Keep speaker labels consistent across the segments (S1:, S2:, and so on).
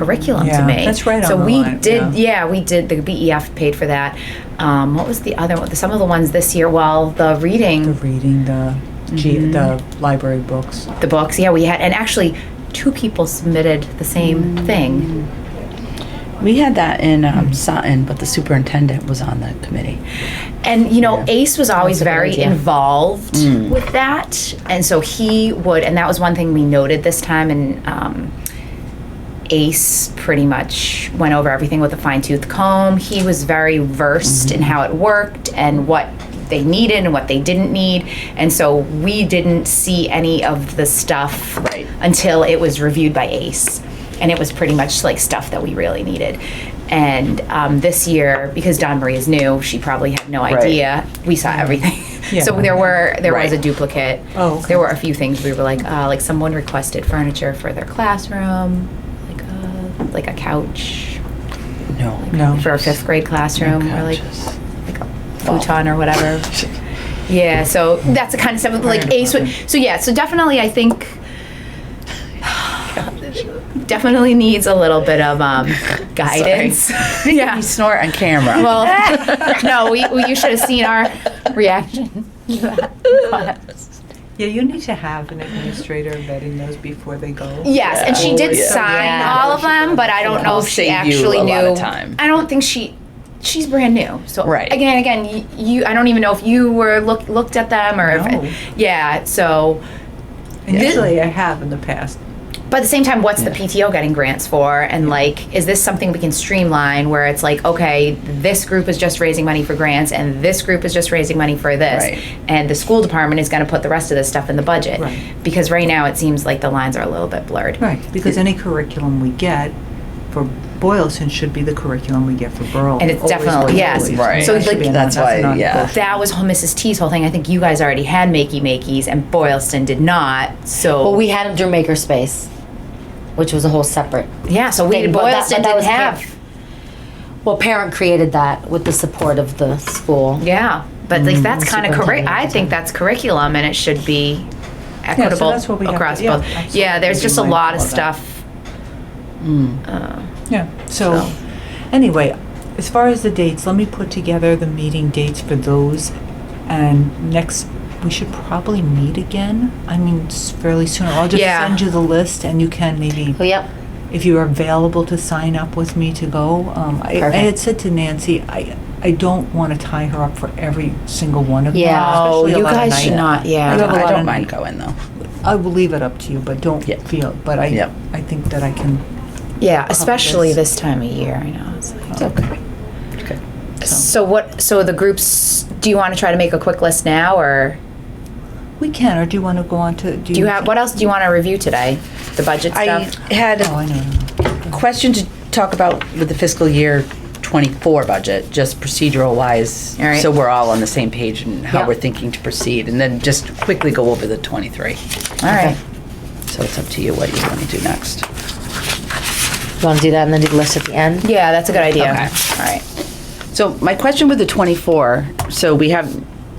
S1: curriculum to
S2: Yeah,
S1: me.
S2: that's right
S1: So
S2: on the
S1: we
S2: line,
S1: did,
S2: yeah.
S1: yeah. we did. The BEF paid for that. Um, what was the other one? Some of the ones this year. Well, the reading,
S2: The reading, the, G
S3: Mm-hmm.
S2: the library books.
S1: the books. Yeah, we had, and actually, two people submitted the same thing.
S3: We had that in um, Sutton, but the superintendent was on the committee.
S1: And you know, Ace was always
S3: That's a good
S1: very
S3: idea.
S1: involved
S2: Mm.
S1: with that, and so he would. And that was one thing we noted this time. And um, Ace pretty much went over everything with a fine tooth comb. He was very versed in how it worked and what they needed and what they didn't need. And so we didn't see any of the stuff
S3: Right.
S1: until it was reviewed by Ace. And it was pretty much like stuff that we really needed. And um, this year, because Don Marie is new, she probably had no idea. We saw everything.
S2: Yeah.
S1: So there were there was
S3: Right.
S1: a duplicate.
S2: Oh, okay.
S1: There were a few things we were like, uh, like someone requested furniture for their classroom, like a, like a couch
S3: No.
S2: No.
S1: for a fifth grade classroom, or like
S3: Couches.
S1: like a futon or whatever.
S2: Oh.
S1: Yeah, so that's the kind of stuff like Ace would. So yeah, so definitely, I think definitely needs a little bit of um, guidance. yeah.
S3: You snort on camera.
S1: Well, no, we, we you should have seen our reaction. to that.
S4: Yeah, you need to have an administrator vetting those before they go.
S1: Yes, and she did
S3: Yeah.
S1: sign
S3: Yeah.
S1: all of them, but I don't know if she
S3: Save you
S1: actually
S3: a
S1: knew.
S3: lot of time.
S1: I don't think she. She's brand new, so
S3: Right.
S1: again, again, y- you. I don't even know if you were look, looked at them or
S4: No.
S1: if, yeah. So,
S4: Usually I have in the past.
S1: but at the same time, what's the PTO getting grants for? And like, is this something we can streamline where it's like, okay, this group is just raising money for grants, and this group is just raising money for this,
S3: Right.
S1: and the school department is going to put the rest of this stuff in the budget,
S4: Right.
S1: because right now it seems like the lines are a little bit blurred.
S4: Right, because any curriculum we get for Boylston should be the curriculum we get for Berlin.
S1: And it's definitely- yes.
S3: Right.
S1: So,
S4: That should
S1: like-
S4: be on
S3: That's
S4: us,
S3: why,
S4: not
S3: yeah.
S4: Boylston.
S1: That was whole Mrs. T's whole thing. I think you guys already had Makey Makeys and Boylston did not. So
S5: Well, we had them through Makerspace, which was a whole separate.
S1: yeah, so we
S5: thing, but that-
S1: Boylston
S5: but that
S1: didn't
S5: was
S1: have.
S5: parent- Well, parent created that with the support of the school.
S1: Yeah, but like that's kind of curric.
S5: superintendent.
S1: I think that's curriculum, and it should be
S4: so
S1: equitable
S4: that's what we have to-
S1: across
S4: yeah,
S1: both. Yeah,
S4: absolutely.
S1: there's
S4: Be
S1: just a lot of
S4: mindful of that.
S1: stuff. uh,
S4: Yeah, so, anyway, as far as the dates, let me put together the meeting dates for those. And next, we should probably meet again. I mean, s- fairly soon. I'll just
S1: Yeah.
S4: send you the list and you can maybe,
S5: Oh, yep.
S4: if you are available to sign up with me to go. Um, I, I
S5: Perfect.
S4: had said to Nancy, I, I don't want to tie her up for every single one of them.
S5: Yeah.
S1: Oh,
S4: especially a
S1: you
S4: lot of
S1: guys should
S4: night.
S1: not. Yeah,
S4: I have a
S3: I
S4: lot
S3: don't
S4: of-
S3: mind going though.
S4: I will leave it up to you, but don't
S3: Yeah.
S4: feel, but I,
S3: Yep.
S4: I think that I can uh,
S1: yeah, especially
S4: this.
S1: this time of year. I know. It's like-
S3: It's okay.
S1: so what? So the groups. Do you want to try to make a quick list now, or
S4: We can, or do you want to go on to, do you?
S1: do you have what else do you want to review today? The budget
S3: I
S1: stuff.
S3: had
S4: Oh, I know, I know.
S3: a question to talk about with the fiscal year twenty-four budget, just procedural wise.
S1: All right.
S3: So we're all on the same page and how
S1: Yeah.
S3: we're thinking to proceed, and then just quickly go over the twenty-three.
S1: All right.
S3: So it's up to you what you want to do next.
S5: You want to do that and then do the list at the end?
S1: Yeah, that's a good idea.
S3: Okay.
S1: All right.
S3: So my question with the 24, so we have,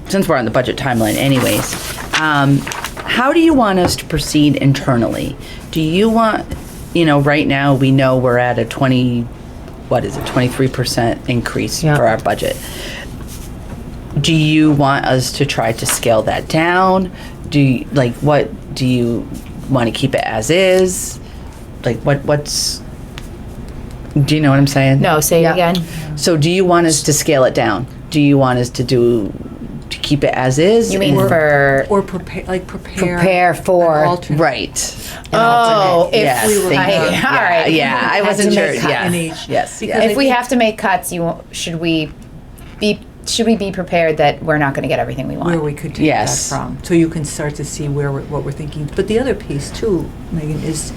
S3: since we're on the budget timeline anyways, um, how do you want us to proceed internally? Do you want, you know, right now, we know we're at a 20, what is it, 23% increase
S5: Yeah.
S3: for our budget. Do you want us to try to scale that down? Do you, like, what, do you want to keep it as is? Like, what, what's, do you know what I'm saying?
S1: No, say
S5: Yeah.
S1: it again.
S3: So do you want us to scale it down? Do you want us to do, to keep it as is?
S1: You mean
S3: And-
S1: for
S4: Or prepare, like prepare.
S5: Prepare for-
S4: an alternate.
S3: Right.
S1: Oh, if
S3: Yes,
S1: we were,
S3: thank
S1: I-
S3: you.
S1: all
S3: Yeah,
S1: right.
S3: Yeah, I wasn't
S4: to
S3: sure,
S4: make cut
S3: yeah,
S4: in each.
S3: yes,
S4: Because
S3: yeah.
S1: If we have to make cuts, you won't- should we be should we be prepared that we're not going to get everything we
S4: Where
S1: want?
S4: we could take that
S3: Yes.
S4: from, so you can start to see where, we're- what we're thinking. But the other piece too, Megan, is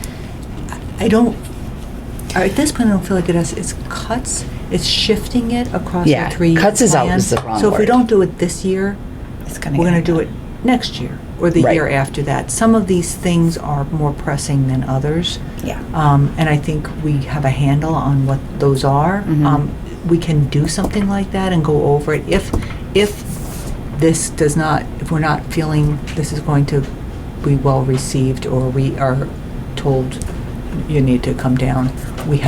S4: I- I don't, I- at this point, I don't feel like it has, it's cuts, it's shifting it across
S3: Yeah,
S4: the three.
S3: cuts is
S4: out
S3: always the wrong
S4: So if we
S3: word.
S4: don't do it this year,
S1: It's gonna
S4: we're
S1: get-
S4: going to do it next year or the
S3: Right.
S4: year after that. Some of these things are more pressing than others.
S1: Yeah.
S4: Um, and I think we have a handle on what those are. Um, we can do something like that and go over it if if this does not if we're not feeling this is going to be well received or we are told you need to come down. We have